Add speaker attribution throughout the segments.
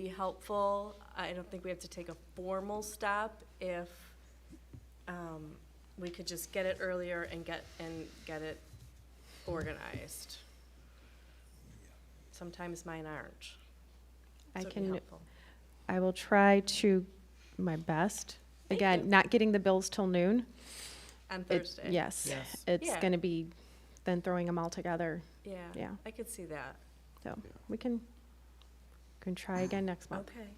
Speaker 1: be helpful. I don't think we have to take a formal step if um, we could just get it earlier and get, and get it organized. Sometimes mine aren't.
Speaker 2: I
Speaker 1: so it'd be
Speaker 2: can,
Speaker 1: helpful.
Speaker 2: I will try to my best.
Speaker 1: Thank you.
Speaker 2: Again, not getting the bills till noon.
Speaker 1: On
Speaker 2: it-
Speaker 1: Thursday.
Speaker 2: Yes,
Speaker 3: Yes.
Speaker 2: it's
Speaker 1: Yeah.
Speaker 2: gonna be then throwing them all together,
Speaker 1: Yeah,
Speaker 2: yeah.
Speaker 1: I could see that.
Speaker 2: So we can, can try again next month.
Speaker 1: Okay.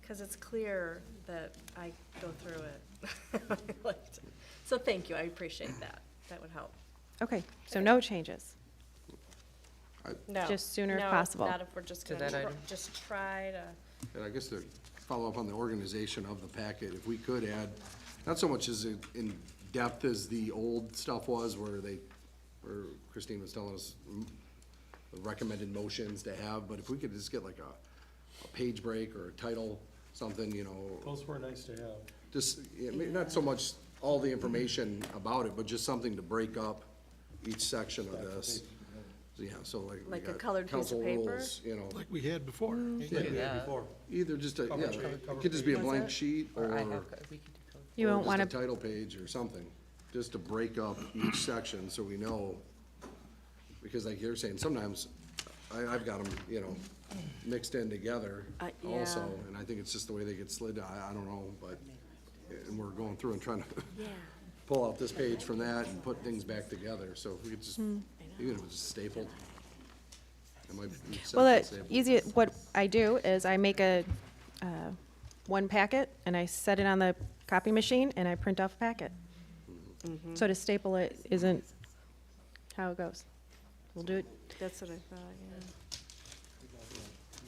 Speaker 1: Because it's clear that I go through it. So thank you, I appreciate that. That would help.
Speaker 2: Okay, so
Speaker 1: Okay.
Speaker 2: no changes.
Speaker 1: No.
Speaker 2: Just sooner if
Speaker 1: no,
Speaker 2: possible.
Speaker 1: Not if we're just
Speaker 3: To
Speaker 1: gonna,
Speaker 3: that
Speaker 1: tr-
Speaker 3: item.
Speaker 1: just try to.
Speaker 4: And I guess to follow up on the organization of the packet, if we could add, not so much as in- in depth as the old stuff was where they, where Christine was telling us mm, the recommended motions to have, but if we could just get like a, a page break or a title, something, you know,
Speaker 5: Those were nice to have.
Speaker 4: just, yeah, may- not so much all the information about it, but just something to break up each section of this. Yeah, so like. we
Speaker 1: Like a
Speaker 4: got
Speaker 1: colored piece of
Speaker 4: council
Speaker 1: paper?
Speaker 4: rules, You know.
Speaker 6: Like we had before.
Speaker 5: Yeah,
Speaker 3: that.
Speaker 5: Before.
Speaker 4: Either just a,
Speaker 5: Cover
Speaker 4: yeah,
Speaker 5: sheet.
Speaker 4: it could just be a blank sheet or,
Speaker 3: Or I have,
Speaker 4: or
Speaker 3: co- we could do color.
Speaker 2: You won't wanna,
Speaker 4: just a title page or something, just to break up each section so we know. Because like you're saying, sometimes I, I've got them, you know, mixed in together
Speaker 1: Uh,
Speaker 4: also,
Speaker 1: yeah.
Speaker 4: and I think it's just the way they get slid, I, I don't know, but, and we're going through and trying to pull out this page from that and put things back together, so if we could just,
Speaker 2: Hmm.
Speaker 4: even if it's stapled. It might be. each
Speaker 2: well, uh,
Speaker 4: section
Speaker 2: the
Speaker 4: stapled.
Speaker 2: easy, what I do is I make a, uh, one packet and I set it on the copy machine and I print off a packet.
Speaker 1: Mm-hmm.
Speaker 2: So to staple it isn't how it goes. We'll do it
Speaker 1: That's what I thought, yeah.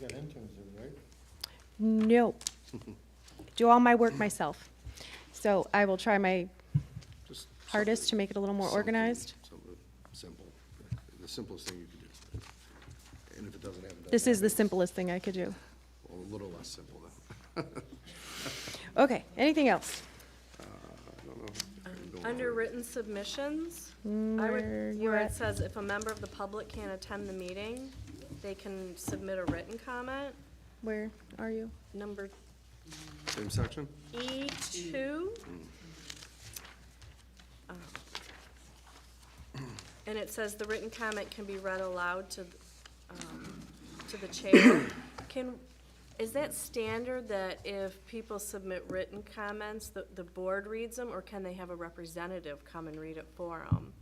Speaker 5: You got interns there, right?
Speaker 2: No. Do all my work myself. So I will try my
Speaker 4: Just
Speaker 2: hardest to make it a little more
Speaker 4: something-
Speaker 2: organized.
Speaker 4: Something simple, the simplest thing you could do. And if it doesn't happen.
Speaker 2: This is the simplest thing I could do.
Speaker 4: A little less simple then.
Speaker 2: Okay, anything else?
Speaker 4: I don't know. Kinda going
Speaker 1: Under
Speaker 4: over.
Speaker 1: written submissions, I
Speaker 2: where
Speaker 1: would,
Speaker 2: you
Speaker 1: where it
Speaker 2: at?
Speaker 1: says if a member of the public can't attend the meeting, they can submit a written comment.
Speaker 2: Where are you?
Speaker 1: Number
Speaker 4: Same section?
Speaker 1: E two. Oh. And it says the written comment can be read aloud to, um, to the chair. Can, is that standard that if people submit written comments, the, the board reads them, or can they have a representative come and read it for them?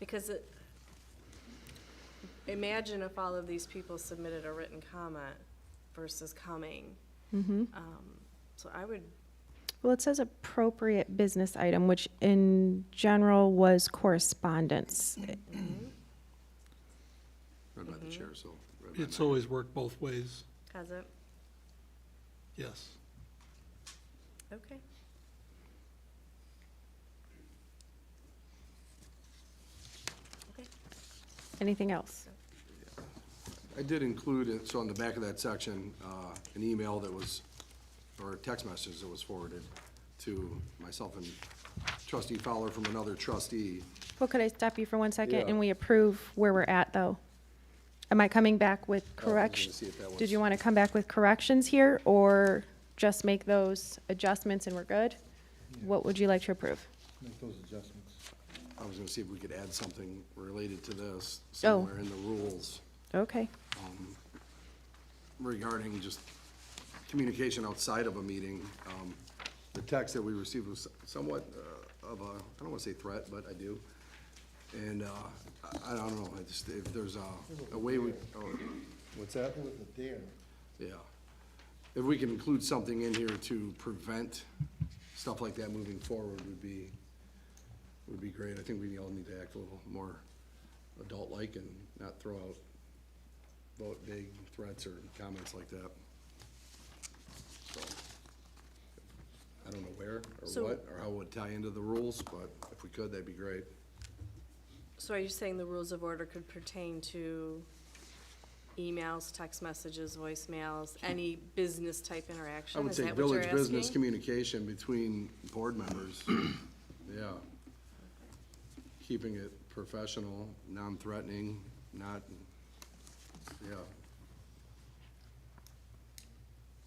Speaker 1: Because it, imagine if all of these people submitted a written comment versus coming. Um, So I would
Speaker 2: Well, it says appropriate business item, which in general was correspondence.
Speaker 4: Read by the chair, so. read by
Speaker 6: It's
Speaker 4: me.
Speaker 6: always worked both ways,
Speaker 1: Has it?
Speaker 6: yes.
Speaker 1: Okay. Okay.
Speaker 2: Anything else?
Speaker 4: I did include, it so on the back of that section, uh, an email that was, or a text message that was forwarded to myself and trustee Fowler from another trustee.
Speaker 2: Well, could I stop you for one second
Speaker 4: Yeah.
Speaker 2: and we approve where we're at, though? Am I coming back with
Speaker 4: gonna
Speaker 2: corrections?
Speaker 4: see if that
Speaker 2: Did
Speaker 4: was-
Speaker 2: you want to come back with corrections here or just make those adjustments and we're good? What would you like to approve?
Speaker 5: Make those adjustments.
Speaker 4: I was gonna see if we could add something related to this
Speaker 2: Oh.
Speaker 4: somewhere in the rules.
Speaker 2: Okay,
Speaker 4: regarding just communication outside of a meeting. Um, The text that we received was somewhat uh, of a, I don't want to say threat, but I do. And uh, I I don't know, I just, if there's a a way we, oh, what's that?
Speaker 5: It was a dare.
Speaker 4: Yeah. If we can include something in here to prevent stuff like that moving forward would be, would be great. I think we all need to act a little more adult-like and not throw out vote big threats or comments like that. So, I don't know where or
Speaker 1: So-
Speaker 4: what or how it would tie into the rules, but if we could, that'd be great.
Speaker 1: So are you saying the rules of order could pertain to emails, text messages, voicemails, any business type
Speaker 4: I
Speaker 1: interaction?
Speaker 4: would
Speaker 1: Is
Speaker 4: say
Speaker 1: that what you're
Speaker 4: village business
Speaker 1: asking?
Speaker 4: communication between board members, yeah. Keeping it professional, non-threatening, not, yeah,